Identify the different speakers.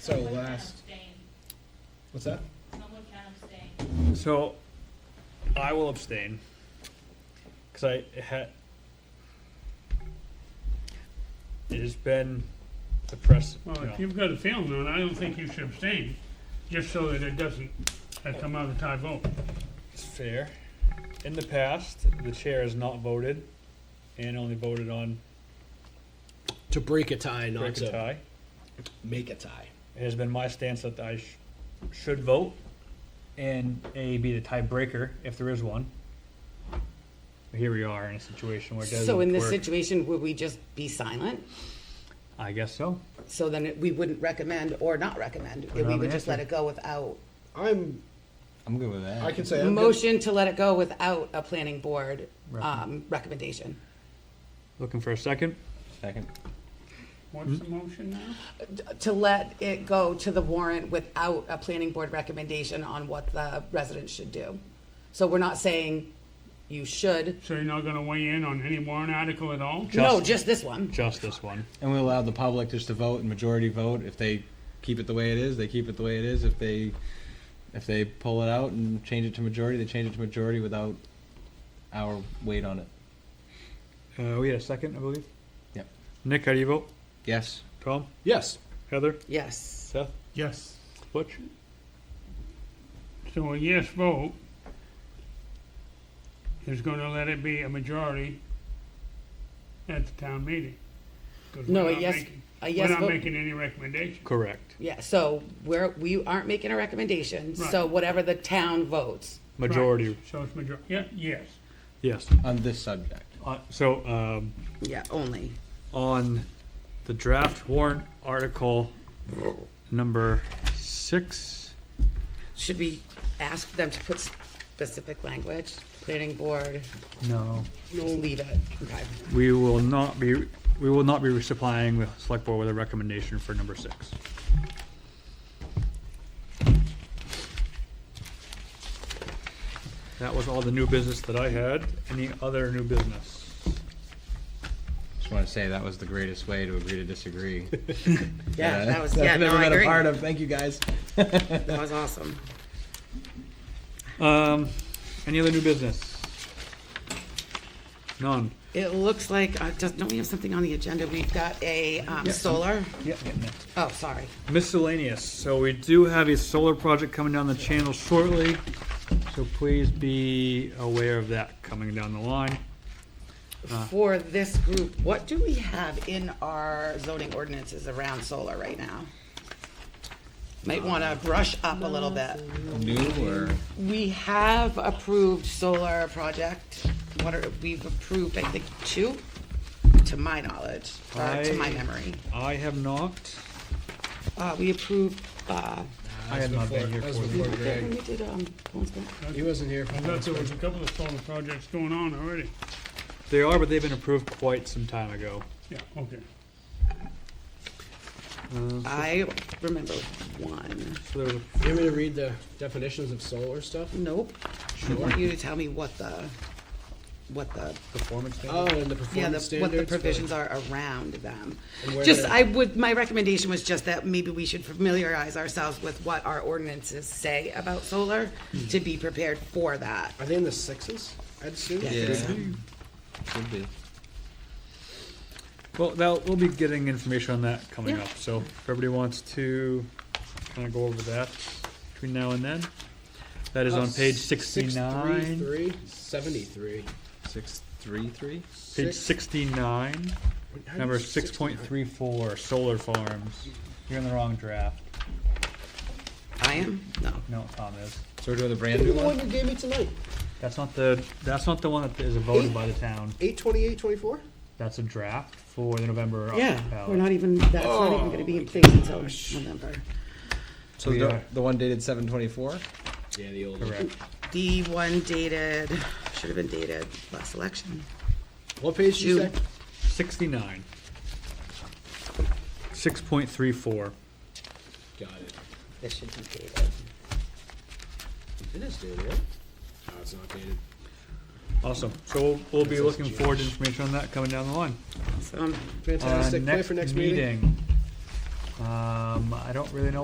Speaker 1: So last,
Speaker 2: Abstain.
Speaker 1: what's that?
Speaker 2: Someone can abstain.
Speaker 3: So, I will abstain because I had. It has been the press.
Speaker 4: Well,
Speaker 3: you know,
Speaker 4: if you've got a feeling on it, I don't think you should abstain, just so that it doesn't uh, come out of tie vote.
Speaker 3: It's fair. In the past, the chair has not voted and only voted on
Speaker 5: to break a tie, not
Speaker 3: break
Speaker 5: to.
Speaker 3: a tie.
Speaker 1: Make a tie.
Speaker 3: It has been my stance that I sh- should vote and A be the tiebreaker if there is one. Here we are in a situation where it doesn't
Speaker 6: So in this
Speaker 3: work.
Speaker 6: situation, would we just be silent?
Speaker 3: I guess so.
Speaker 6: So then it- we wouldn't recommend or not recommend,
Speaker 3: it
Speaker 6: we
Speaker 3: on the
Speaker 6: would just let it
Speaker 3: agenda.
Speaker 6: go without,
Speaker 1: I'm,
Speaker 7: I'm good with that.
Speaker 1: I can say I'm good.
Speaker 6: motion to let it go without a planning board,
Speaker 3: Recommend.
Speaker 6: um, recommendation.
Speaker 3: Looking for a second.
Speaker 7: Second.
Speaker 4: What's the motion now?
Speaker 6: To let it go to the warrant without a planning board recommendation on what the residents should do. So we're not saying you should,
Speaker 4: So you're not gonna weigh in on any warrant article at all?
Speaker 6: no,
Speaker 3: Just-
Speaker 6: just this one.
Speaker 3: Just this one.
Speaker 7: And we allow the public just to vote and majority vote. If they keep it the way it is, they keep it the way it is. If they, if they pull it out and change it to majority, they change it to majority without our weight on it.
Speaker 3: Uh, we had a second, I believe.
Speaker 7: Yep.
Speaker 3: Nick, how do you vote?
Speaker 7: Yes.
Speaker 3: Tom?
Speaker 1: Yes.
Speaker 3: Heather?
Speaker 6: Yes,
Speaker 3: Seth?
Speaker 4: Yes.
Speaker 3: Butch?
Speaker 4: So a yes vote is gonna let it be a majority at the town meeting. 'Cause we're
Speaker 6: No, a
Speaker 4: not
Speaker 6: yes-
Speaker 4: making-
Speaker 6: a yes
Speaker 4: We're not
Speaker 6: vote-
Speaker 4: making any recommendation.
Speaker 3: Correct.
Speaker 6: yeah, so we're, we aren't making a recommendation, so
Speaker 4: Right.
Speaker 6: whatever the town votes.
Speaker 3: Majority.
Speaker 4: Right, So it's major, yeah, yes.
Speaker 3: Yes.
Speaker 7: On this subject.
Speaker 3: Uh, so um,
Speaker 6: Yeah, only.
Speaker 3: on the draft warrant article number six.
Speaker 6: Should we ask them to put specific language, planning board,
Speaker 3: No.
Speaker 6: just leave it? Okay.
Speaker 3: We will not be. We will not be resupplying the select board with a recommendation for number six. That was all the new business that I had. Any other new business?
Speaker 7: Just want to say that was the greatest way to agree to disagree.
Speaker 6: Yeah, that was,
Speaker 7: I've
Speaker 6: yeah, no,
Speaker 7: never
Speaker 6: I
Speaker 7: been a
Speaker 6: agree.
Speaker 7: part of. Thank you guys.
Speaker 6: That was awesome.
Speaker 3: Um, any other new business? None.
Speaker 6: It looks like, uh, does, don't we have something on the agenda? We've got a, um, solar.
Speaker 3: Yeah.
Speaker 6: Oh, sorry.
Speaker 3: Miscellaneous, so we do have a solar project coming down the channel shortly, so please be aware of that coming down the line.
Speaker 7: Uh.
Speaker 6: For this group, what do we have in our zoning ordinances around solar right now? Might wanna brush up a little bit.
Speaker 7: New or
Speaker 6: We have approved solar project. What are, we've approved, I think, two, to my knowledge, or to my
Speaker 3: I-
Speaker 6: memory.
Speaker 3: I have not,
Speaker 6: Uh, we approved, uh,
Speaker 3: I have not been here
Speaker 1: That was
Speaker 3: for
Speaker 1: before
Speaker 3: the
Speaker 1: Greg.
Speaker 6: when we did, um, Bones Grant.
Speaker 1: He wasn't here. for
Speaker 4: I thought there was a couple of solar projects going on already.
Speaker 3: They are, but they've been approved quite some time ago.
Speaker 4: Yeah, okay.
Speaker 6: I remember one.
Speaker 3: So there was a-
Speaker 5: You want me to read the definitions of solar stuff?
Speaker 6: Nope. I want you to tell me what the, what the, Uh,
Speaker 5: Oh, and the
Speaker 6: yeah,
Speaker 5: performance
Speaker 6: the, what
Speaker 5: standards.
Speaker 6: the
Speaker 5: for-
Speaker 6: provisions are around them.
Speaker 5: And where
Speaker 6: Just,
Speaker 5: they're-
Speaker 6: I would, my recommendation was just that maybe we should familiarize ourselves with what our ordinances say about solar to be prepared for that.
Speaker 5: Are they in the sixes? I'd assume.
Speaker 6: Yeah.
Speaker 7: should be.
Speaker 3: well, now, we'll be getting information on that coming
Speaker 6: Yeah.
Speaker 3: up, so if everybody wants to kinda go over that between now and then, that
Speaker 6: Uh,
Speaker 3: is on page sixty-nine,
Speaker 5: 633, 73.
Speaker 7: Six three three.
Speaker 3: page
Speaker 5: six-
Speaker 3: sixty-nine.
Speaker 5: How do
Speaker 3: Number
Speaker 5: you-
Speaker 3: six point three four, solar farms. You're in the wrong draft.
Speaker 6: I am? No.
Speaker 3: No, Tom is.
Speaker 7: So we're doing the brand
Speaker 5: The
Speaker 7: new one.
Speaker 5: one you gave me tonight,
Speaker 3: That's not the, that's not the one that is voted by the town.
Speaker 5: eight twenty-eight, twenty-four?
Speaker 3: That's a draft for the November.
Speaker 6: Yeah, we're
Speaker 3: ballot.
Speaker 6: not even, that's not even gonna be in place until November.
Speaker 7: So
Speaker 3: We
Speaker 7: the,
Speaker 3: are-
Speaker 7: the one dated seven twenty four.
Speaker 5: Yeah, the old
Speaker 3: Correct.
Speaker 6: The one dated, should have been dated last election.
Speaker 5: What page did you
Speaker 6: June.
Speaker 5: say?
Speaker 3: Sixty-nine. Six point three four.
Speaker 5: Got it.
Speaker 6: This should be dated.
Speaker 5: It is dated, right? No, it's not dated.
Speaker 3: Awesome. So we'll, we'll be looking forward to information on that coming down the line.
Speaker 6: So, um,
Speaker 3: Uh,
Speaker 5: Fantastic, plan for next meeting.
Speaker 3: meeting, Um, I don't really know